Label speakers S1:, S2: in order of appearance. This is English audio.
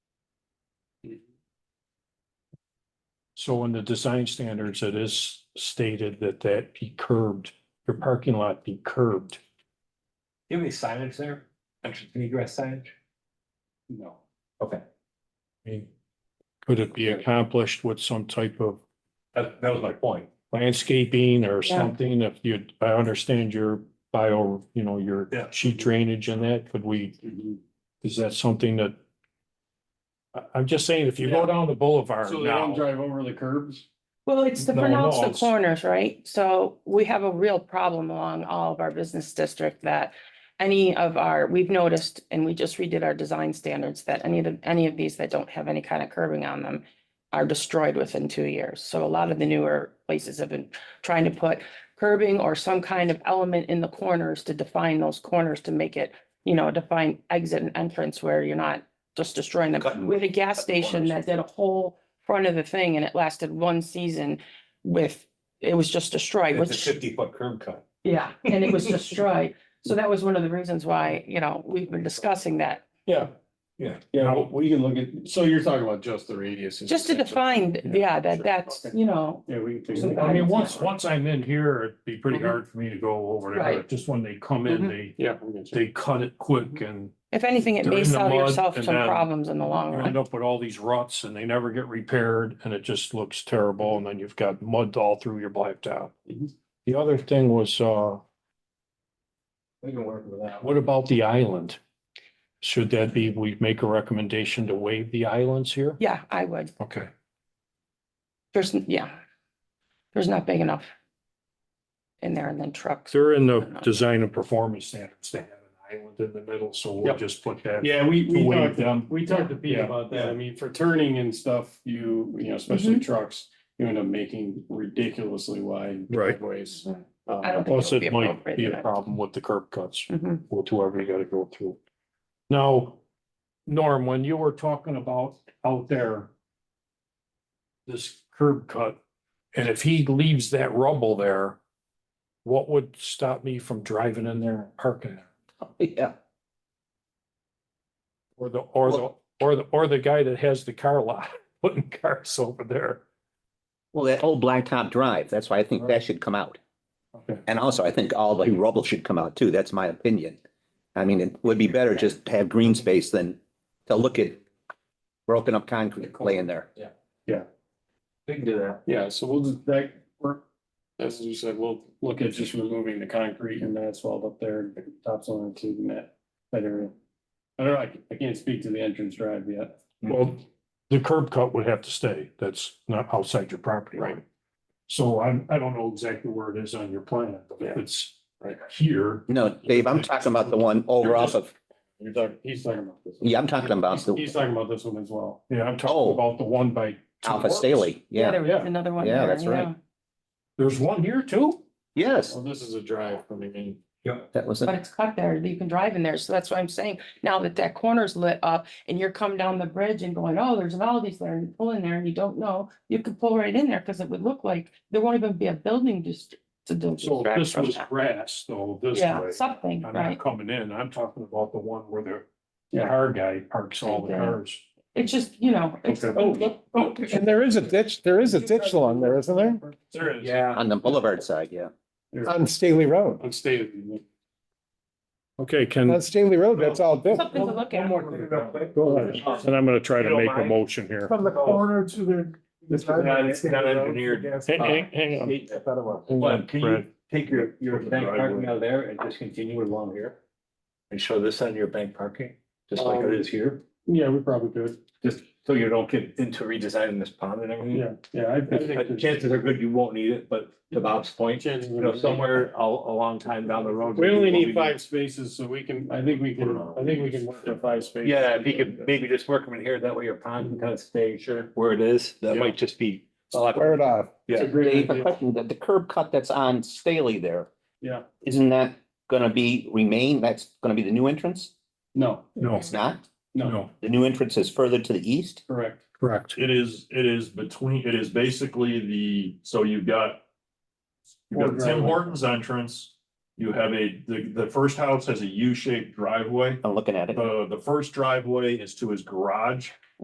S1: So in the design standards, it is stated that that be curbed, your parking lot be curbed.
S2: Do you have any signage there? Entrance and egress signage? No. Okay,
S1: I mean, could it be accomplished with some type of
S2: that, that was my point.
S1: landscaping or
S3: Yeah.
S1: something? If you, I understand your bio, you know, your
S2: Yeah.
S1: sheet drainage and that, could we, is that something that? I, am just saying, if you go
S4: Yeah.
S1: down the boulevard
S4: So they don't
S1: now,
S4: drive over the curbs?
S3: Well, it's to
S1: No,
S3: pronounce
S1: no,
S3: the
S1: it's-
S3: corners, right? So we have a real problem along all of our business district that any of our, we've noticed, and we just redid our design standards, that any of, the- any of these that don't have any kind of curbing on them are destroyed within two years. So a lot of the newer places have been trying to put curbing or some kind of element in the corners to define those corners to make it, you know, define exit and entrance where you're not just destroying them.
S2: Cutting-
S3: We had a gas
S2: cutting
S3: station
S2: corners.
S3: that did a whole front of the thing and it lasted one season with, it was just destroyed,
S2: It's a
S3: which,
S2: fifty foot curb cut.
S3: yeah, and it was destroyed. So that was one of the reasons why, you know, we've been discussing that,
S1: yeah,
S4: Yeah. Yeah, we- we can look at, so you're talking about just the radius.
S3: just to define, yeah, that that's, you know,
S4: Yeah, we can.
S3: Some
S4: figure
S1: I
S4: that
S1: mean,
S4: out.
S1: once, once I'm in here, it'd be pretty
S4: Mhm.
S1: hard for me to go over there,
S3: Right.
S1: but just when they come in,
S3: Mhm.
S1: they,
S4: Yeah. I'm gonna check.
S1: they cut it quick and
S3: if anything, it
S1: They're
S3: may
S1: in the
S3: solve
S1: mud
S3: yourself
S1: and
S3: some
S1: then-
S3: problems in the long
S1: You
S3: run.
S1: end up with all these ruts and they never get repaired and it just looks terrible and then you've got mud all through your blacktop.
S4: Mhm.
S1: The other thing was, uh,
S4: We can work with that.
S1: what about the island? Should that be, we make a recommendation to waive the islands here?
S3: Yeah, I would.
S1: Okay.
S3: There's, yeah. There's not big enough. In there and then trucks.
S1: They're in the design and performance standards. They have an island in the middle, so we'll
S4: Yep.
S1: just put that.
S4: Yeah, we,
S1: To
S4: we
S1: waive
S4: talked,
S1: them.
S4: we talked to Pete
S1: Yeah.
S4: about that. I mean, for turning and stuff, you, you know, especially trucks, you end up making ridiculously wide
S1: Right.
S4: driveways.
S3: Mhm.
S4: Um,
S3: I don't think
S1: Plus
S3: it would be
S1: it might
S3: appropriate.
S1: be a
S3: to-
S1: problem with the curb cuts.
S3: Mhm.
S1: with whoever you gotta go through. Now, Norm, when you were talking about out there. This curb cut, and if he leaves that rubble there. What would stop me from driving in there and parking there?
S5: Yeah,
S1: Or the, or the, or the, or the guy that has the car lot, putting cars over there?
S5: well, that old Blacktop Drive, that's why I think that should come out.
S1: Okay.
S5: And also, I think all the rubble should come out too. That's my opinion. I mean, it would be better just to have green space than to look at broken up concrete laying there.
S2: We can do that.
S4: Yeah, so we'll just, that, we're, as you said, we'll look at just removing the concrete and the asphalt up there, and the tops on it to that, that area. I don't know, I, c- I can't speak to the entrance drive yet.
S1: Well, the curb cut would have to stay. That's not outside your property. Right. So I'm, I don't know exactly where it is on your plan, but if it's
S4: Right.
S1: here.
S5: No, Dave, I'm talking about the one over off of,
S4: You're talking, he's talking about this. one.
S5: yeah, I'm talking about
S4: He's- He's
S5: the
S4: talking about this one as well.
S1: Yeah, I'm
S5: Oh.
S1: talking about the one by.
S5: Alpha
S1: Works.
S5: Staley. Yeah,
S3: There was another one.
S5: Yeah,
S3: there,
S5: that's right.
S1: There's one here too?
S5: yes,
S4: Well, this is a drive coming in.
S5: that was
S3: But
S5: it.
S3: it's cut there, you can drive in there, so that's what I'm saying, now that that corner's lit up and you're coming down the bridge and going, oh, there's an Aldi's there, and you pull in there and you don't know, you could pull right in there, because it would look like there won't even be a building just to
S1: So
S3: distract
S1: this
S3: from
S1: was
S3: that.
S1: grass, though, this
S3: Yeah,
S1: way.
S3: something,
S1: I'm
S3: right,
S1: not coming in. I'm talking about the one where the
S4: Yeah.
S1: car guy parks all the
S3: Okay.
S1: cars.
S3: it's just, you know, it's,
S1: Okay.
S4: Oh, oh,
S6: And there is a ditch, there is a ditch along there, isn't there?
S4: There is.
S5: On the boulevard side, yeah.
S6: On Staley Road.
S4: On state.
S1: Okay,
S6: On
S1: can,
S6: Staley Road, that's all ditch.
S3: something to look at.
S6: Go ahead.
S1: and I'm gonna try
S2: to You don't make a mind?
S1: motion here.
S6: From the corner to the.
S2: Oh, This is not- it's not engineered.
S1: hang
S2: But can you take your, your bank parking out of there and just continue along here? Um, And show this on your bank parking, just like it is here,
S4: Yeah, we probably could.
S2: just so you don't get into redesigning this pond and everything.
S4: Yeah, yeah. I- I think
S2: But
S4: there's-
S2: Chances are good you won't need it, but to Bob's point,
S4: chances are-
S2: you know, somewhere a, a long time down the road.
S4: We only
S2: we'll
S4: need
S2: be-
S4: five spaces, so we can, I think we can, I think we can work with five spaces.
S2: Yeah, if you could maybe just work them in here, that way your pond can kind of stay sure where it is, that might just be. a lot-
S6: Square it off.
S2: Yeah.
S4: It's a
S5: Dave,
S4: great
S5: a
S4: idea.
S5: question, the, the curb cut that's on Staley there.
S4: Yeah.
S5: Isn't that gonna be remain? That's gonna be the new entrance?
S4: No,
S1: No,
S5: It's not?
S4: no,
S1: no,
S5: The new entrance is further to the east?
S4: correct.
S1: correct.
S7: It is, it is between, it is basically the, so you've got. You've
S4: Or
S7: got Tim
S4: driveway.
S7: Hortons entrance, you have a, the, the first house has a U-shaped driveway.
S5: I'm looking at it.
S7: The, the first driveway is to his garage.